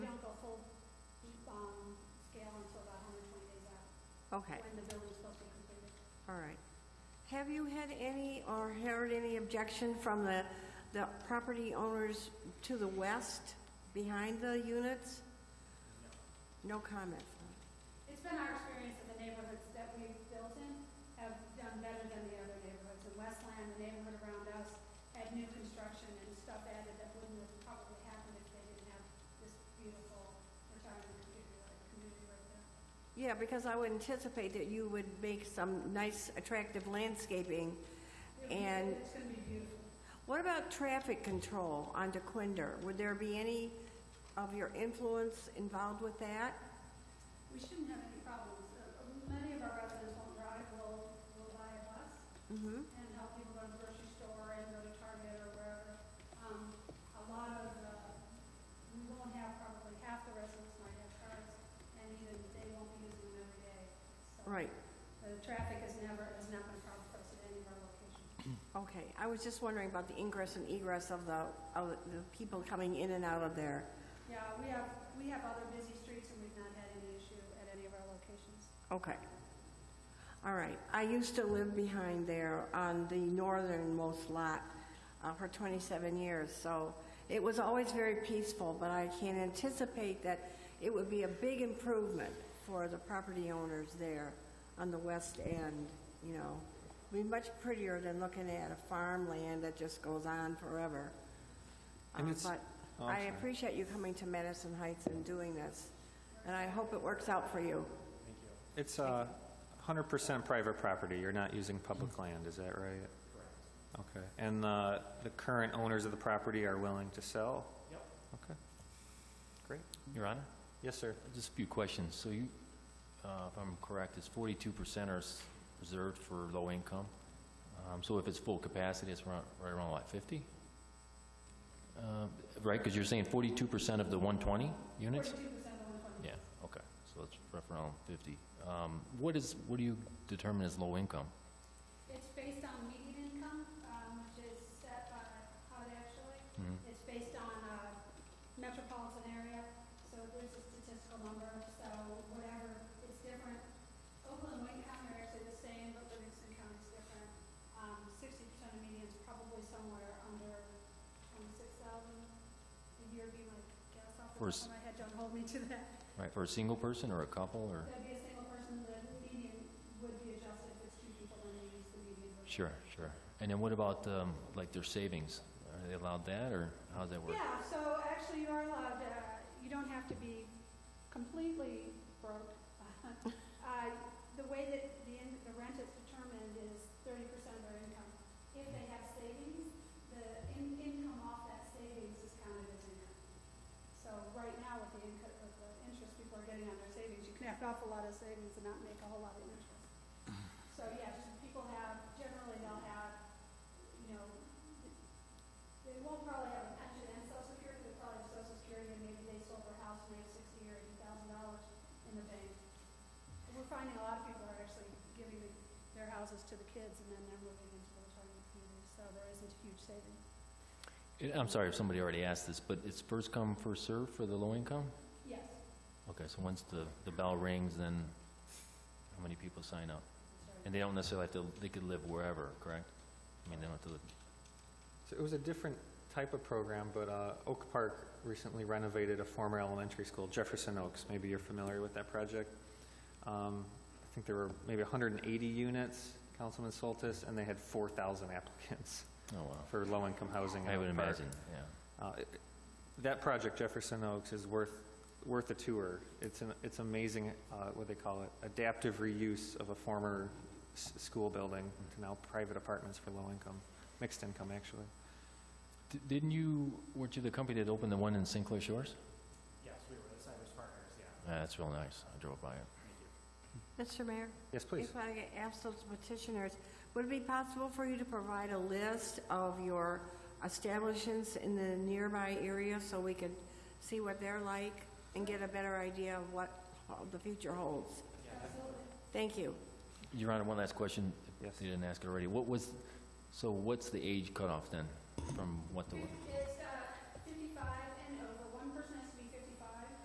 um, Okay, when the building's supposed to be completed. all right. Have you had any or heard any objection from the, the property owners to the west behind the units? No comment. It's been our experience that the neighborhoods that we've built in have done better than the other neighborhoods. In Westland, the neighborhood around us had new construction and stuff added that wouldn't have probably happened if they didn't have this beautiful retirement community, like, community right there. Yeah, because I would anticipate that you would make some nice attractive landscaping. And It's gonna be beautiful. what about traffic control onto Quinder? Would there be any of your influence involved with that? We shouldn't have any problems. Uh, Many of our residents on Broad will, will buy a bus Mm-hmm. and help people go to the grocery store and go to Target or wherever. Um, a lot of, uh, we won't have probably half the residents might have cars and even they won't be using them every day. So Right, The traffic is never, has not been a problem for us at any of our locations. okay. I was just wondering about the ingress and egress of the, of the people coming in and out of there. Yeah, we have, we have other busy streets and we've not had any issue at any of our locations. Okay. All right. I used to live behind there on the northernmost lot uh, for 27 years, so it was always very peaceful, but I can anticipate that it would be a big improvement for the property owners there on the west end, you know. Be much prettier than looking at a farmland that just goes on forever. And Uh, it's- But Oh, I I'm sorry. appreciate you coming to Madison Heights and doing this, and I hope it works out for you. It's uh, 100% private property, you're not using public land, is that Mm. right? Correct. Okay, and uh, the current owners of the property are willing to sell? Yep. Okay, great. Your Honor, Yes, sir. just a few questions. So you, uh, if I'm correct, it's forty-two percent are s- reserved for low income. Um, So if it's full capacity, it's around- right around, what, fifty? Uh, Right, because you're saying forty-two percent of the one twenty units? Forty-two percent of the one twenty. Yeah, okay, so it's rough around fifty. Um, What is, what do you determine as low income? It's based on median income, um, which is set by HUD actually. It's based on, uh, metropolitan area, so there's a statistical number, so whatever, it's different. Oakland, Wayne County are actually the same, but Livingston County's different. Um, sixty percent of median's probably somewhere under twenty-six thousand a year would be my guess off the For top s- of my head, don't hold me to that. Right, for a single person or a couple or? That'd be a single person, the median would be adjusted if it's two people, then they use the median. would be- Sure, sure. And then what about, um, like, their savings? Are they allowed that, or how does that work? Yeah, so actually you are allowed, uh, you don't have to be completely broke. Uh, The way that the, in- the rent is determined is thirty percent of their income. If they have savings, the in, income off that savings is counted as income. So right now with the income, with the interest people are getting on their savings, you can have an awful lot of savings and not make a whole lot of interest. So yeah, just people have, generally they'll have, you know, they won't probably have a pension and social security, they'll probably have social security, and maybe they sold their house and they have sixty or eighty thousand dollars in the bank. And We're finding a lot of people are actually giving their houses to the kids and then they're moving into the retirement community, so there isn't a huge savings. Eh, I'm sorry if somebody already asked this, but it's first come, first served for the low income? Yes, Okay, so once the, the bell rings, then how many people sign up? And they don't necessarily have to, they could live wherever, correct? I mean, they don't have to live, So it was a different type of program, but uh, Oak Park recently renovated a former elementary school, Jefferson Oaks. Maybe you're familiar with that project. Um, I think there were maybe 180 units, Councilman Soltis, and they had 4,000 applicants oh, wow. for low-income housing. in I would Oak Park. imagine, yeah. Uh, it- That project, Jefferson Oaks, is worth, worth a tour. It's an, it's amazing, uh, what they call it, adaptive reuse of a former s- school building to now private apartments for low income, mixed income, actually. D- Didn't you, weren't you the company that opened the one in Sinclair Shores? Yes, we were the Cyrus Partners, yeah. That's real nice, I drove by it. Mr. Mayor? Yes, please. If I ask those petitioners, would it be possible for you to provide a list of your establishments in the nearby area so we could see what they're like and get a better idea of what the future holds? Thank you. Your Honor, one last question. if Yes. You didn't ask it already. What was, so what's the age cutoff then, from what to what? it